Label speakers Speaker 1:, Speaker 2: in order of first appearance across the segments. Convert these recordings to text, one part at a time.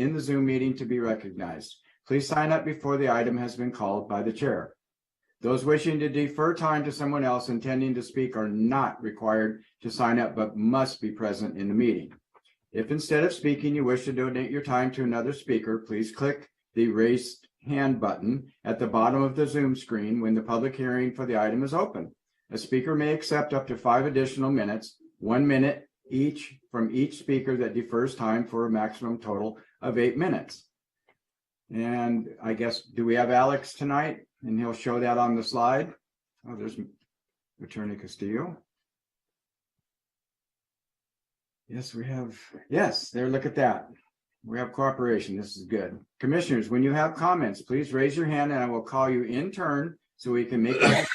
Speaker 1: in the Zoom meeting to be recognized. Please sign up before the item has been called by the chair. Those wishing to defer time to someone else intending to speak are not required to sign up, but must be present in the meeting. If instead of speaking, you wish to donate your time to another speaker, please click the raised hand button at the bottom of the Zoom screen when the public hearing for the item is open. A speaker may accept up to five additional minutes, one minute each from each speaker that defers time for a maximum total of eight minutes. And I guess, do we have Alex tonight? And he'll show that on the slide. Oh, there's Attorney Castillo. Yes, we have, yes, there, look at that. We have cooperation. This is good. Commissioners, when you have comments, please raise your hand and I will call you in turn so we can make it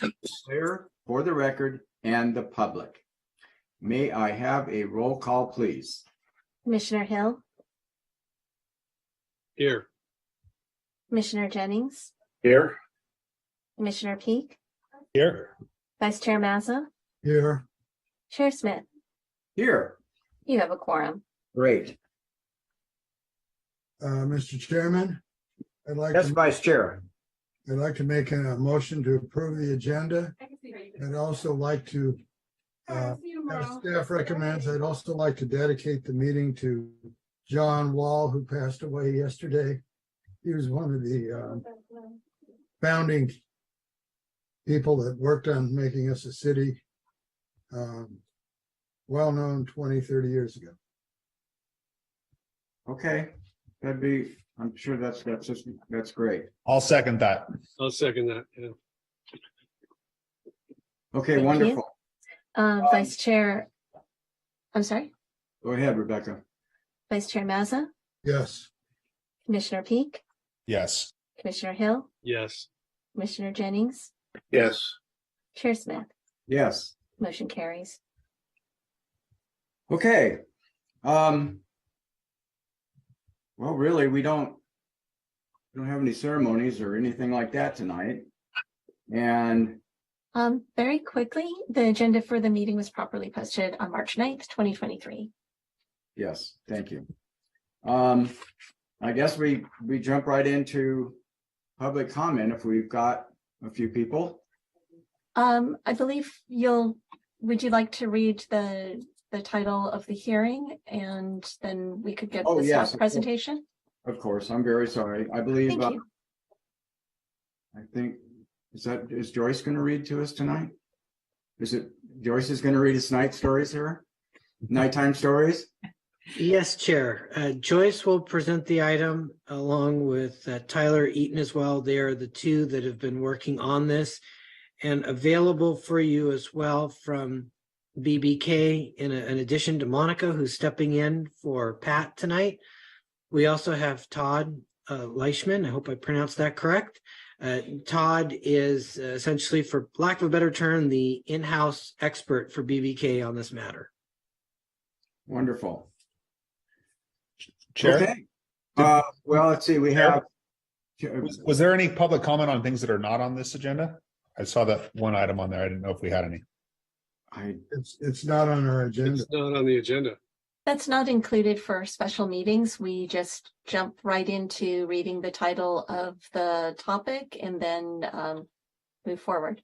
Speaker 1: clear for the record and the public. May I have a roll call, please?
Speaker 2: Commissioner Hill,
Speaker 3: Here.
Speaker 2: Commissioner Jennings,
Speaker 3: Here.
Speaker 2: Commissioner Peak,
Speaker 3: Here.
Speaker 2: Vice Chair Mazza,
Speaker 1: Here.
Speaker 2: Chair Smith,
Speaker 1: Here.
Speaker 2: you have a quorum.
Speaker 1: Great.
Speaker 4: Uh, Mr. Chairman, I'd like,
Speaker 1: Yes,
Speaker 4: to
Speaker 1: Vice Chair.
Speaker 4: I'd like to make a motion to approve the agenda. I'd also like to, uh, as staff recommends, I'd also like to dedicate the meeting to John Wall, who passed away yesterday. He was one of the, um, founding people that worked on making us a city, um, well-known 20, 30 years ago.
Speaker 1: Okay, that'd be, I'm sure that's, that's just, that's great.
Speaker 5: I'll second that.
Speaker 3: I'll second that. Yeah.
Speaker 1: Okay,
Speaker 2: Thank you.
Speaker 1: wonderful.
Speaker 2: Um, Vice Chair, I'm sorry,
Speaker 1: Go ahead, Rebecca.
Speaker 2: Vice Chair Mazza,
Speaker 4: Yes,
Speaker 2: Commissioner Peak,
Speaker 5: Yes.
Speaker 2: Commissioner Hill,
Speaker 3: Yes.
Speaker 2: Commissioner Jennings,
Speaker 3: Yes.
Speaker 2: Chair Smith,
Speaker 1: Yes.
Speaker 2: motion carries.
Speaker 1: Okay, um. Well, really, we don't. we Don't have any ceremonies or anything like that tonight. And,
Speaker 2: Um, very quickly, the agenda for the meeting was properly posted on March 9th, twenty twenty-three.
Speaker 1: yes, thank you. Um, I guess we, we jump right into public comment if we've got a few people.
Speaker 2: Um, I believe you'll, would you like to read the, the title of the hearing and then we could get
Speaker 1: Oh, yes, of
Speaker 2: the staff
Speaker 1: course.
Speaker 2: presentation?
Speaker 1: Of course, I'm very sorry. I believe,
Speaker 2: Thank
Speaker 1: uh,
Speaker 2: you.
Speaker 1: I think, is that, is Joyce gonna read to us tonight? Is it, Joyce is gonna read us night stories here? Nighttime stories?
Speaker 6: Yes, Chair. Uh, Joyce will present the item along with uh, Tyler Eaton as well. They are the two that have been working on this and available for you as well from BBK in, in addition to Monica, who's stepping in for Pat tonight. We also have Todd uh, Leishman. I hope I pronounced that correct. Uh, Todd is uh, essentially, for lack of a better term, the in-house expert for BBK on this matter.
Speaker 1: Wonderful.
Speaker 5: Chair,
Speaker 1: Okay. Uh, well, let's see, we have.
Speaker 5: was- was there any public comment on things that are not on this agenda? I saw that one item on there. I didn't know if we had any.
Speaker 1: I,
Speaker 4: it's, it's not on our agenda.
Speaker 3: It's not on the agenda.
Speaker 2: That's not included for special meetings. We just jump right into reading the title of the topic and then, um, move forward.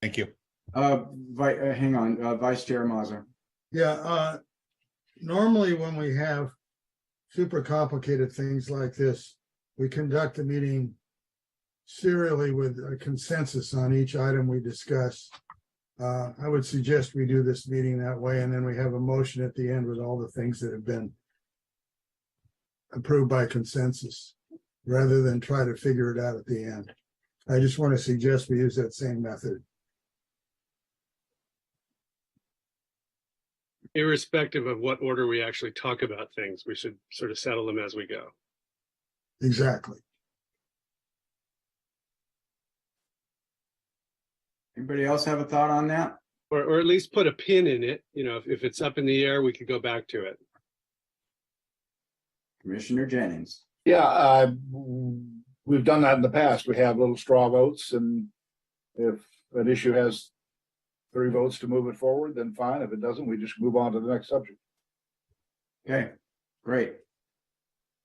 Speaker 5: Thank you.
Speaker 1: uh, vi, uh, hang on, uh, Vice Chair Mazza.
Speaker 4: Yeah, uh, normally when we have super complicated things like this, we conduct the meeting serially with a consensus on each item we discuss. Uh, I would suggest we do this meeting that way, and then we have a motion at the end with all the things that have been approved by consensus, rather than try to figure it out at the end. I just want to suggest we use that same method.
Speaker 3: Irrespective of what order we actually talk about things, we should sort of settle them as we go.
Speaker 4: Exactly.
Speaker 1: Anybody else have a thought on that?
Speaker 3: Or, or at least put a pin in it, you know, if, if it's up in the air, we could go back to it.
Speaker 1: Commissioner Jennings.
Speaker 7: Yeah, uh, we've done that in the past. We have little straw votes and if an issue has three votes to move it forward, then fine. If it doesn't, we just move on to the next subject.
Speaker 1: Okay, great.